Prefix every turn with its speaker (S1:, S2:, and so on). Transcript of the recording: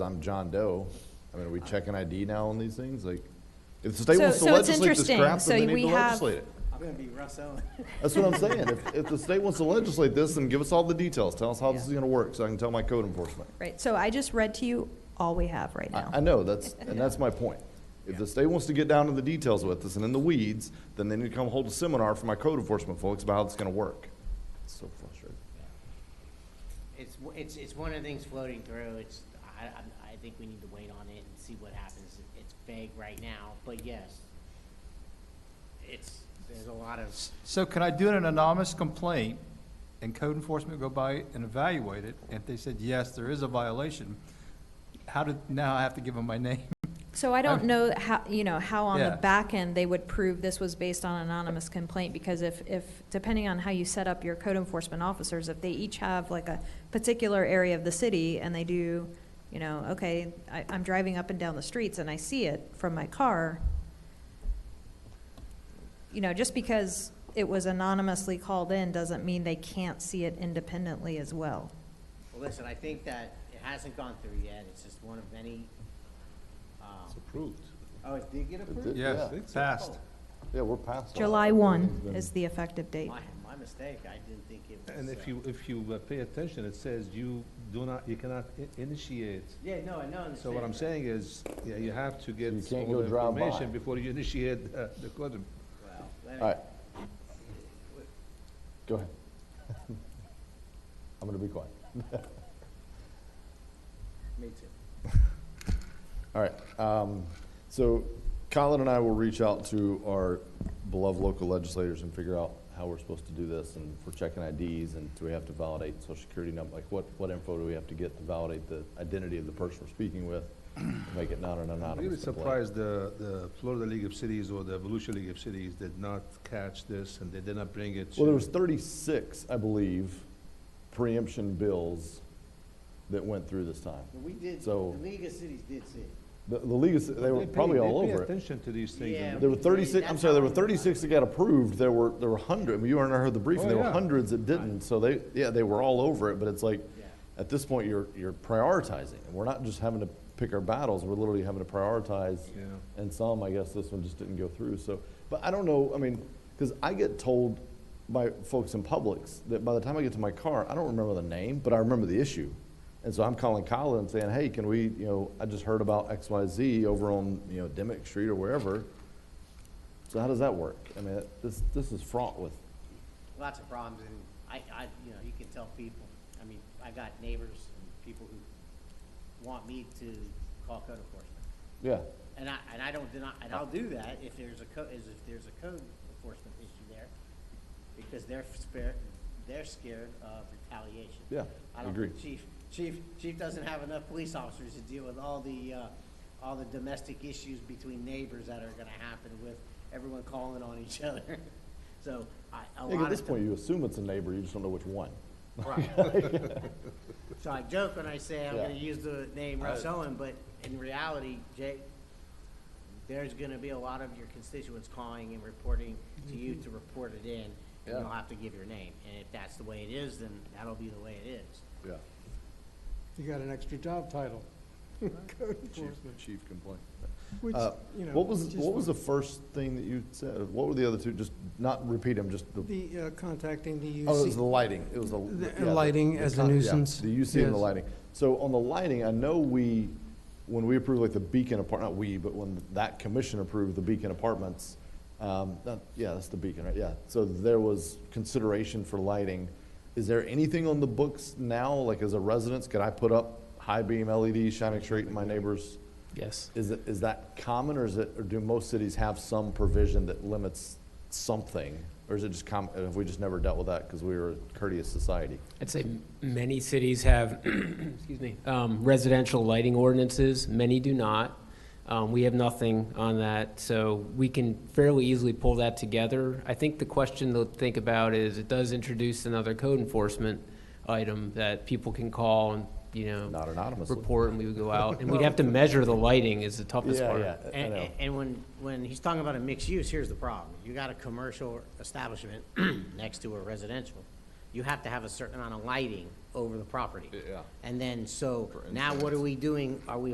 S1: I'm John Doe. I mean, are we checking ID now on these things? Like, if the state
S2: Uh, So-
S1: wants to
S2: so it's
S1: legislate this
S2: interesting.
S1: crap,
S2: So
S1: then they
S2: we
S1: need to
S2: have-
S1: legislate it.
S3: I'm gonna be Russ Owen.
S1: That's what I'm saying. If, if the state wants to legislate this, then give us all the details. Tell us how this is gonna work, so I can tell my code enforcement.
S2: Right, so I just read to you all we have right
S1: I, I
S2: now.
S1: know, that's, and that's my point. If the state wants to get down to the details with us and in the weeds, then they need to come hold a seminar for my code enforcement folks about how it's gonna work. It's so frustrating.
S4: It's, w- it's, it's one of the things floating through, it's, I, I, I think we need to wait on it and see what happens. It's vague right now, but yes, it's, there's a lot of,
S5: So can I do an anonymous complaint and code enforcement go by and evaluate it? And if they said, yes, there is a violation, how did, now I have to give them my name?
S2: So I don't know how, you know, how on the
S5: Yeah.
S2: back end they would prove this was based on anonymous complaint, because if, if, depending on how you set up your code enforcement officers, if they each have like a particular area of the city, and they do, you know, okay, I, I'm driving up and down the streets and I see it from my car, you know, just because it was anonymously called in doesn't mean they can't see it independently as well.
S4: well, listen, I think that it hasn't gone through yet, it's just one of many. um,
S1: approved.
S4: Oh, it did get approved?
S1: Yeah.
S5: Yes, passed.
S1: Yeah, we're past. all
S2: July
S1: that.
S2: one is the effective date.
S4: Oh, My, my mistake, I didn't think it was.
S6: And if
S4: uh,
S6: you, if you uh, pay attention, it says you do not, you cannot i- initiate.
S4: Yeah, no, I know.
S6: So what I'm saying is, yeah, you have to get
S1: You can't
S6: all
S1: go
S6: the
S1: drive by.
S6: information before you initiate uh, the code.
S4: Well, let me-
S1: All right. Go ahead. I'm gonna be quiet.
S4: me too.
S1: All right, um, so Colin and I will reach out to our beloved local legislators and figure out how we're supposed to do this, and if we're checking IDs, and do we have to validate social security number, like, what, what info do we have to get to validate the identity of the person we're speaking with, to make it not an
S6: I'm
S1: anonymous
S6: really
S1: complaint?
S6: surprised the, the Florida League of Cities or the Evolution League of Cities did not catch this and they did not bring it
S1: Well, there
S6: to.
S1: was thirty-six, I believe, preemption bills that went through this time.
S4: But We did, the
S1: So-
S4: League of Cities did see. it.
S1: The, the league, is- they were
S6: pay-
S1: probably all
S6: They pay
S1: over it.
S6: attention to these things.
S4: Yeah.
S6: and-
S1: There were thirty-six, I'm
S4: That's
S1: sorry, there
S4: how
S1: were
S4: I-
S1: thirty-six that got approved, there were, there were hundred, I mean, you and I heard the briefing,
S6: Oh,
S1: there were
S6: yeah.
S1: hundreds that didn't, so they, yeah, they were all over it, but it's like,
S4: Yeah.
S1: at this point, you're, you're prioritizing, and we're not just having to pick our battles, we're literally having to prioritize.
S6: Yeah.
S1: And some, I guess this one just didn't go through, so, but I don't know, I mean, because I get told by folks in Publix that by the time I get to my car, I don't remember the name, but I remember the issue. And so I'm calling Colin and saying, hey, can we, you know, I just heard about X, Y, Z over on, you know, Demick Street or wherever. So how does that work? I mean, it- this, this is fraught with,
S4: lots of problems, and I, I, you know, you can tell people, I mean, I got neighbors and people who want me to call code enforcement.
S1: yeah,
S4: And I, and I don't deny, and I'll do that if there's a co, is if there's a code enforcement issue there, because they're scared, they're scared of retaliation.
S1: Yeah,
S4: I don't,
S1: agree.
S4: think chief, chief, chief doesn't have enough police officers to deal with all the, uh, all the domestic issues between neighbors that are gonna happen with everyone calling on each other. So I,
S1: I
S4: a lot of.
S1: think at this
S4: the-
S1: point, you assume it's a neighbor, you just don't know which one.
S4: Right. So I joke when I say I'm
S1: Yeah.
S4: gonna use the name Russ Owen, but in reality, Jake, there's gonna be a lot of your constituents calling and reporting to you to report it in, and you'll
S1: Mm-hmm. Yeah.
S4: have to give your name. And if that's the way it is, then that'll be the way it is.
S1: Yeah,
S7: You got an extra job title. Code enforcement,
S1: chief complaint.
S7: which,
S1: Uh,
S7: you know.
S1: What was,
S7: just
S1: what was the first thing that you said? What were the other two? Just not repeat them, just the,
S7: The, uh, contacting the
S1: oh, it was the
S7: UC.
S1: lighting. It was the.
S7: The
S1: yeah, the-
S7: lighting
S1: the
S7: as a
S1: con- yeah,
S7: nuisance,
S1: The UC and the
S7: yes.
S1: lighting. So on the lighting, I know we, when we approved like the Beacon apart, not we, but when that commission approved the Beacon Apartments, um, that, yeah, that's the Beacon, right? Yeah. So there was consideration for lighting. Is there anything on the books now, like as a residence, could I put up high beam LED shining straight in my neighbor's?
S8: Yes.
S1: Is, it, is that common, or is it, or do most cities have some provision that limits something? Or is it just com, have we just never dealt with that because we were a courteous society?
S8: I'd say m- many cities have, excuse me, um, residential lighting ordinances, many do not. Um, We have nothing on that, so we can fairly easily pull that together. I think the question to think about is, it does introduce another code enforcement item that people can call and, you know,
S1: Not anonymously.
S8: report, and we would go out, and we'd have to measure the lighting is the toughest
S1: Yeah,
S8: part.
S1: yeah. I
S4: And,
S1: know.
S4: and when, when he's talking about a mixed use, here's the problem. You got a commercial establishment next to a residential. You have to have a certain amount of lighting over the property.
S1: Yeah.
S4: And then, so
S1: For
S4: now what are we doing? Are we